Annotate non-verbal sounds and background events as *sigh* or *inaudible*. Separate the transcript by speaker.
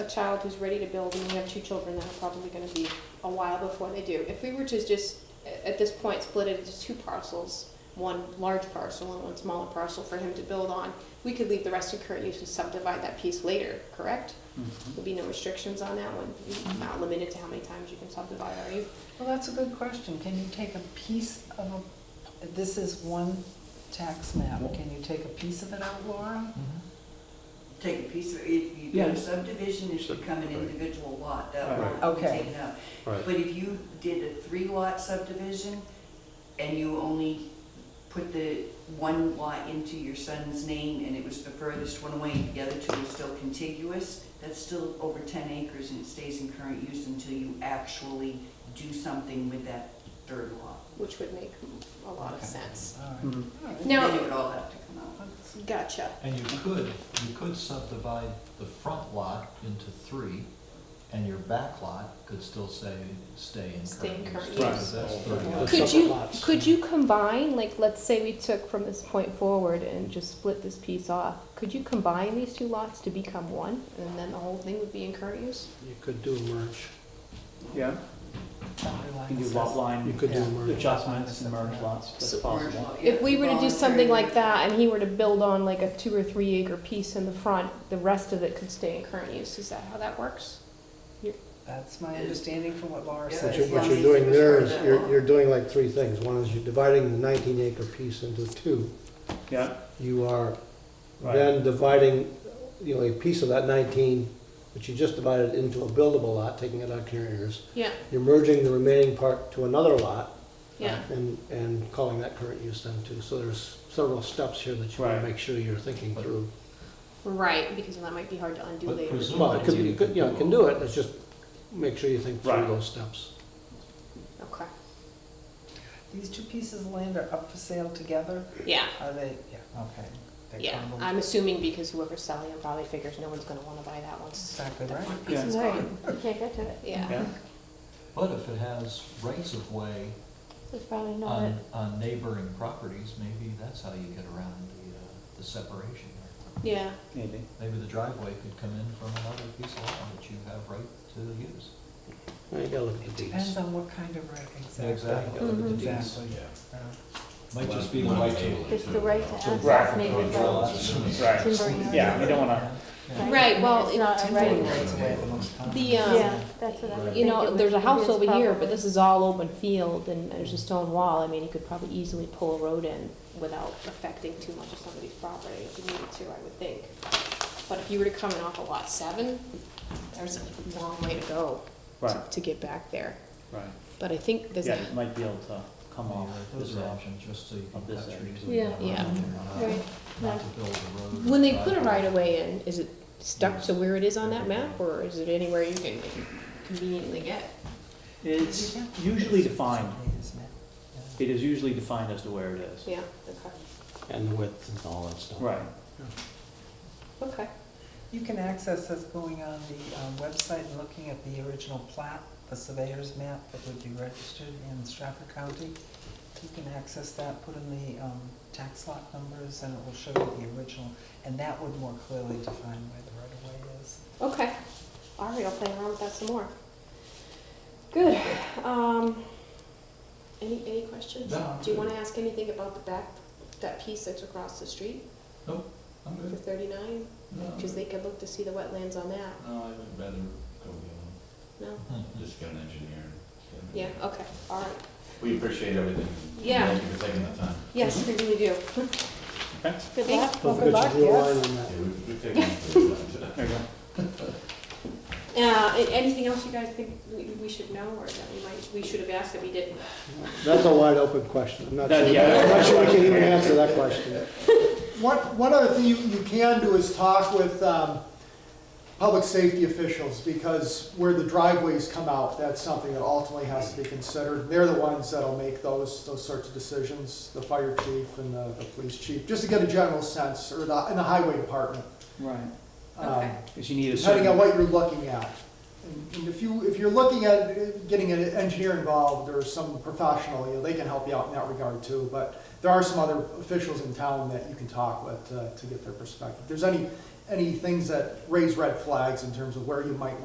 Speaker 1: a child who's ready to build, and we have two children that are probably gonna be a while before they do. If we were to just, a- at this point, split it into two parcels, one large parcel and one smaller parcel for him to build on, we could leave the rest in current use and subdivide that piece later, correct?
Speaker 2: Mm-hmm.
Speaker 1: There'll be no restrictions on that one, You're not limited to how many times you can subdivide, are you?
Speaker 3: Well, that's a good question. Can you take a piece of a, this is one tax map. Can you take a piece of it out, Laura?
Speaker 4: Take a piece of, if you do
Speaker 2: Yeah.
Speaker 4: a subdivision, it's become an
Speaker 5: Subdivide.
Speaker 4: individual lot, that
Speaker 2: Right.
Speaker 4: lot is
Speaker 3: Okay.
Speaker 4: taken up.
Speaker 5: Right.
Speaker 4: But if you did a three lot subdivision and you only put the one lot into your son's name and it was the furthest one away, the other two are still contiguous, that's still over ten acres and it stays in current use until you actually do something with that third lot.
Speaker 1: Which would make a lot of
Speaker 3: Okay.
Speaker 1: sense.
Speaker 3: All right.
Speaker 2: Mhm.
Speaker 3: All right.
Speaker 1: Now-
Speaker 4: Then it would all have to come out.
Speaker 3: That's-
Speaker 1: Gotcha.
Speaker 6: And you could, you could subdivide the front lot into three, and your back lot could still say, stay in current use.
Speaker 1: Stay in current
Speaker 6: because
Speaker 2: use.
Speaker 6: that's
Speaker 2: Right.
Speaker 6: thirty
Speaker 2: Yeah.
Speaker 6: lots.
Speaker 1: Could
Speaker 2: separate
Speaker 1: you,
Speaker 2: lots.
Speaker 1: could you combine, like, let's say we took from this point forward and just split this piece off, could you combine these two lots to become one, and then the whole thing would be in current use?
Speaker 2: You could do a merge. Yeah,
Speaker 3: boundary line
Speaker 2: you do lot
Speaker 3: assess-
Speaker 2: line.
Speaker 7: You could do
Speaker 2: yeah,
Speaker 7: merge.
Speaker 2: Adjustments and merge lots, that's
Speaker 1: So
Speaker 2: possible.
Speaker 1: If we were to do something like that, and he were to build on like a two or three acre piece in the front, the rest of it could stay in current use, is that how that works?
Speaker 3: That's my understanding from what Laura
Speaker 4: Yeah.
Speaker 3: said.
Speaker 7: What you're, what you're doing there is, you're, you're doing like three things. One is you're dividing the nineteen acre piece into two.
Speaker 2: Yeah,
Speaker 7: You are
Speaker 2: Right.
Speaker 7: then dividing, you know, a piece of that nineteen, which you just divided into a buildable lot, taking it out to your heirs.
Speaker 1: Yeah,
Speaker 7: You're merging the remaining part to another lot
Speaker 1: yeah,
Speaker 7: and, and calling that current use then too. So there's several steps here that you wanna
Speaker 2: Right.
Speaker 7: make sure you're thinking
Speaker 6: But-
Speaker 7: through.
Speaker 1: right, because that might be hard to undo
Speaker 6: But
Speaker 1: later.
Speaker 6: presu-
Speaker 7: Well, it could, be- you could, you know, you can do it, it's just make sure you think through
Speaker 2: Right.
Speaker 7: those steps.
Speaker 1: Okay,
Speaker 3: These two pieces of land are up for sale together?
Speaker 1: yeah,
Speaker 3: Are they, yeah, okay. They're
Speaker 1: yeah,
Speaker 3: combo-
Speaker 1: I'm assuming because whoever's selling them probably figures no one's gonna wanna buy that one.
Speaker 3: Exactly right.
Speaker 2: Yeah.
Speaker 4: It's
Speaker 1: Right.
Speaker 4: gone.
Speaker 8: You can't get to it.
Speaker 1: Yeah,
Speaker 2: yeah,
Speaker 6: But if it has rights of way
Speaker 8: It's probably not
Speaker 5: Um,
Speaker 8: it.
Speaker 6: on, on neighboring properties, maybe that's how you get around the, uh, the separation there.
Speaker 1: yeah,
Speaker 2: maybe.
Speaker 6: Maybe the driveway could come in from another piece of land that you have right to use.
Speaker 7: You gotta look at the deeds.
Speaker 3: Depends on what kind of right, exactly.
Speaker 6: Exactly.
Speaker 1: Mm-hmm.
Speaker 6: Look at the deeds.
Speaker 3: Exactly. yeah.
Speaker 6: Might just be the right to.
Speaker 8: It's the right to
Speaker 2: Right.
Speaker 8: access maybe, but
Speaker 2: Right.
Speaker 8: timbering.
Speaker 2: Yeah, we don't wanna,
Speaker 1: right, well,
Speaker 8: It's
Speaker 1: it-
Speaker 8: not a right.
Speaker 3: Timberland rights away the most common.
Speaker 1: The, um,
Speaker 8: Yeah, that's what I would
Speaker 1: You
Speaker 8: think it
Speaker 1: know,
Speaker 8: would-
Speaker 1: there's a
Speaker 8: it
Speaker 1: house
Speaker 8: is
Speaker 1: over here, but
Speaker 8: probably.
Speaker 1: this is all open field and there's a stone wall. I mean, you could probably easily pull a road in without affecting too much of somebody's property if you needed to, I would think. But if you were to come in off of lot seven, there's a long way to go to-
Speaker 2: Right.
Speaker 1: to get back there.
Speaker 2: right,
Speaker 1: But I think there's,
Speaker 2: yeah,
Speaker 1: a-
Speaker 2: it might be able to come off this
Speaker 6: Those are
Speaker 2: edge.
Speaker 6: options, just so you
Speaker 2: Of
Speaker 6: can
Speaker 2: this
Speaker 6: cut
Speaker 2: edge.
Speaker 6: trees.
Speaker 8: Yeah.
Speaker 6: and
Speaker 1: Yeah.
Speaker 6: not-
Speaker 8: Right.
Speaker 6: Not to build a road. or
Speaker 1: when they put a
Speaker 6: driveway.
Speaker 1: right of way in, is it stuck to where it is on that map or is it anywhere you can conveniently get?
Speaker 2: It's usually defined,
Speaker 3: Yeah.
Speaker 2: it is usually defined as to where it is.
Speaker 1: Yeah, okay,
Speaker 7: And the width and all that stuff.
Speaker 2: Right,
Speaker 1: okay.
Speaker 3: You can access this going on the um, website and looking at the original plat, the surveyor's map that would be registered in Stratford County. You can access that, put in the um, tax lot numbers, and it will show you the original. And that would more clearly define where the right-of-way is.
Speaker 1: Okay. All right, I'll play around with that some more. Good. Um, any any questions?
Speaker 6: No, I'm
Speaker 1: Do you
Speaker 6: good.
Speaker 1: want to ask anything about the back that piece that's across the street
Speaker 6: I'm
Speaker 1: for
Speaker 6: good.
Speaker 1: thirty nine?
Speaker 6: No, I'm
Speaker 1: Because they
Speaker 6: good.
Speaker 1: could look to see the wetlands on that.
Speaker 5: No, I would rather go beyond,
Speaker 1: No.
Speaker 6: Mm-hmm. Hmm.
Speaker 5: just get an engineer.
Speaker 1: Yeah. Okay. All right.
Speaker 5: We appreciate everything.
Speaker 1: Yeah.
Speaker 5: Thank you for taking the time.
Speaker 1: Yes, we really do. *laughs*
Speaker 8: Good
Speaker 1: Thank-
Speaker 8: luck.
Speaker 7: Don't
Speaker 3: Well, good
Speaker 7: forget
Speaker 3: luck,
Speaker 7: to draw a
Speaker 3: yeah.
Speaker 7: line on that.
Speaker 5: Yeah, we've, we've taken the time today.
Speaker 2: there you go.
Speaker 1: Uh, a- anything else you guys think we, we should know or that we might we should have asked that we didn't?
Speaker 7: That's a wide open question. I'm not
Speaker 2: That-
Speaker 7: sure,
Speaker 2: yeah.
Speaker 7: I'm not sure we can even answer that question.
Speaker 9: *laughs* One, one other thing you, you can do is talk with, um, public safety officials, because where the driveways come out, that's something that ultimately has to be considered. They're the ones that'll make those, those sorts of decisions, the fire chief and the, the police chief, just to get a general sense, or the, and the highway department.
Speaker 2: Right,
Speaker 9: um,
Speaker 1: Okay.
Speaker 2: because you need a certain.
Speaker 9: Depending on what you're looking at. And- And if you, if you're looking at getting an engineer involved or some professional, you know, they can help you out in that regard too. uh, But there are some other officials in town that you can talk with to, to get their perspective. If there's any, any things that raise red flags in terms of where you might